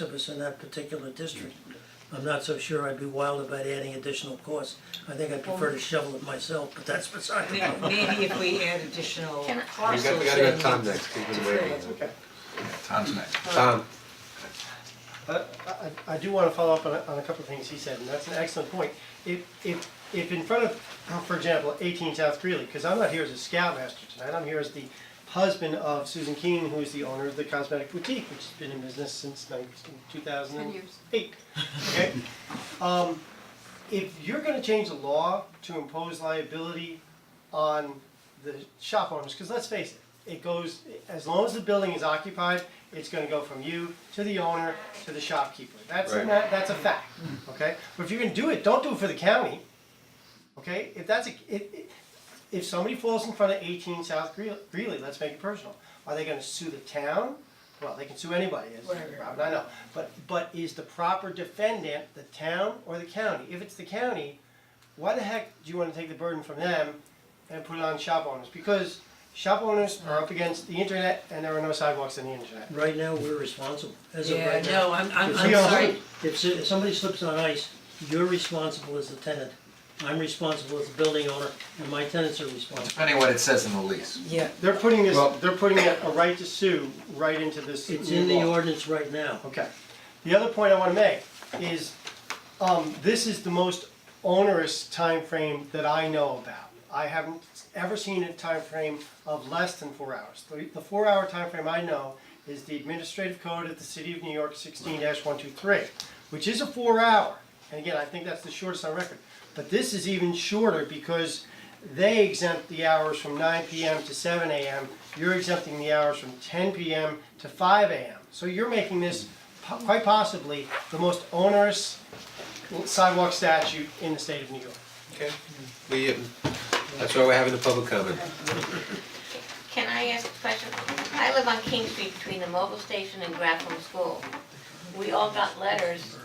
of us in that particular district. I'm not so sure I'd be wild about adding additional costs. I think I'd prefer to shovel it myself, but that's beside the May- point. Maybe if we add additional Can I- parcels. We got, we gotta go then- to Tom next, he's been waiting. Tom's next. Tom, I, I, I do wanna follow up on a, on a couple of things he said, and that's an excellent point. If, if, if in front of, for example, eighteen South Greeley, cause I'm not here as a scoutmaster tonight, I'm here as the husband of Susan Keen, who is the owner of the Cosmetic Boutique, which has been in business since nineteen, two thousand and eight, okay? Um, if you're gonna change the law to impose liability on the shop owners, because let's face it, it goes, as long as the building is occupied, it's gonna go from you to the owner to the shopkeeper. That's, Right. that- that's a fact, okay? But if you're gonna do it, don't do it for the county, okay? If that's, a if, if- if somebody falls in front of eighteen South Greeley, Greeley, let's make it personal. Are they gonna sue the town? Well, they can sue anybody, is, Right, right, I know, but, but is the proper defendant the town or the county? If it's the county, why the heck do you wanna take the burden from them and put it on shop owners? Because shop owners are up against the internet and there are no sidewalks in the internet. Right now, we're responsible, as of Yeah, right now. no, I'm, I'm, If I'm you- sorry, If, s- if somebody slips on ice, you're responsible as the tenant. I'm responsible as the building owner, and my tenants are responsible. Depending what it says in the lease. yeah, They're putting this, Well- they're putting a a right to sue right into this It's new in the law. ordinance right now. Okay. The other point I wanna make is, um, this is the most onerous time frame that I know about. I haven't ever seen a time frame of less than four hours. The, the four-hour time frame I know is the administrative code of the city of New York sixteen one-two-three, which is a four-hour. And again, I think that's the shortest on record. But this is even shorter because they exempt the hours from nine PM to seven AM. You're exempting the hours from ten PM to five AM. So you're making this po- quite possibly the most onerous sidewalk statute in the state of New York. okay, we, um, that's why we're having the public comment. Can I ask a question? I live on King Street between the mobile station and Grafflin School. We all got letters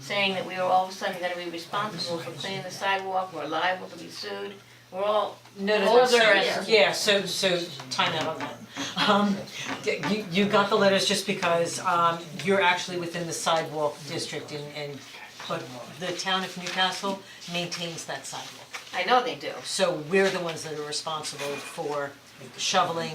saying that we were all of a sudden gonna be responsible for cleaning the sidewalk, we're liable to be sued. We're all no, no, no, older so- and. yeah, so, so time out on that. Um, y- you, you got the letters just because, um, you're actually within the sidewalk district and, and, but the town of Newcastle maintains that sidewalk. I know they do. So we're the ones that are responsible for shoveling,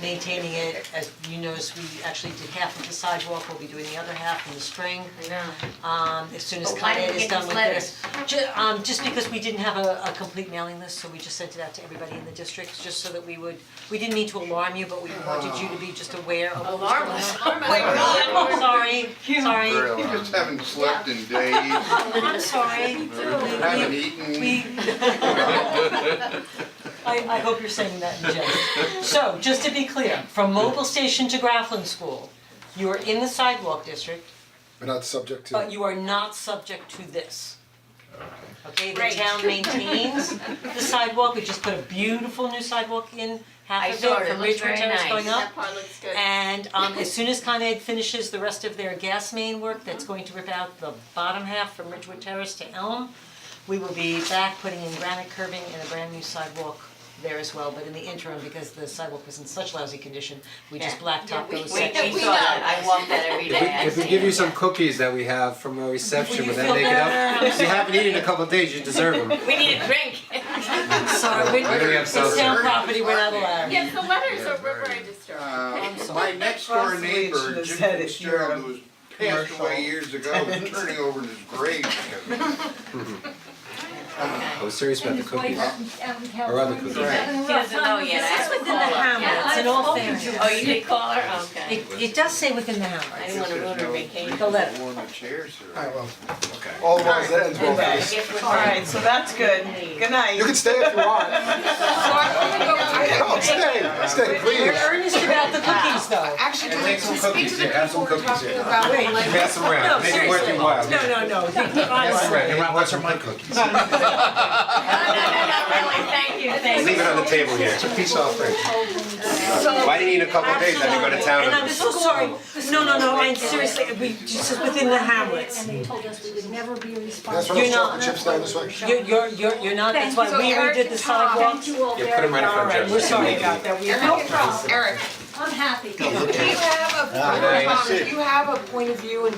maintaining it, as you notice, we actually did half of the sidewalk, we'll be doing the other half in the spring. I know. Um, as soon as But why Con Ed did we is get done these with letters? this. Ju- um, just because we didn't have a, a complete mailing list, so we just sent it out to everybody in the district, just so that we would, we didn't mean to alarm you, but we wanted you to be just aware of what was Alarm going us. on. Oh my God, sorry, sorry, You just haven't slept in days, I'm sorry. We- haven't we- eaten. We. I, I hope you're saying that in jest. So, just to be clear, from mobile station to Grafflin School, you are in the sidewalk district, We're not subject to. but you are not subject to this. Okay, Great. the town maintains the sidewalk, we just put a beautiful new sidewalk in, I half of saw it it, it from looks Ridgewood very Terrace nice. going up. That part looks good. And um as soon as Con Ed finishes the rest of their gas main work, that's going to rip out the bottom half from Ridgewood Terrace to Elm. We will be back putting in granite curving and a brand new sidewalk there as well, but in the interim, because the sidewalk was in such lousy condition, we just Yeah. blacktop those We, sections. we saw that, I walk that every day, I If we see give it. you some cookies that we have from our reception Will with you that feel naked better? up, if you haven't eaten in a couple of days, you deserve them. We need a drink. Sorry, we We're gonna have it's some- town property, we're not allowed. Yes, the letters are very disturbing. Uh, my sorry. next door neighbor, Possibly it should have said it Jim here Fitzgerald, on who was passed away years ago, is turning over in his grave because of it. I was serious about the cookies, or other California. cookies. She doesn't know yet, I It's haven't within the called her. hamlets, in all Yeah, I've fairness. Oh, you did call her, okay. It it does say within the I hamlets. didn't wanna ruin her vacation. The letter. One of the chairs here. Alright, well, all the ones that ends well. I guess we're. Alright, so that's good. Good night. You can stay if you want. No, stay, stay, We're please. earnest about the cookies though. And take some cookies here, have some cookies here. Wait. Pass them No, around, make it worth seriously. your while. No, no, no, Pass them around, Hey, Ron, what's are my cookies? No, no, no, no, really, thank you, thank you. leave it on the table here. It's a peace offering. Why do you eat in a couple of days, I go to town And I'm so sorry, no, no, no, and seriously, we, this is within the hamlets. And they told us we would never be responsible. That's You're what not- chocolate chips down this way. You're, you're, you're, you're not, that's why So we Eric redid the and Tom, sidewalks. Thank you all very Yeah, put them right in front of Alright, Jeff. we're sorry about that, we No problem. Eric, I'm happy. you have a, you have a point of view in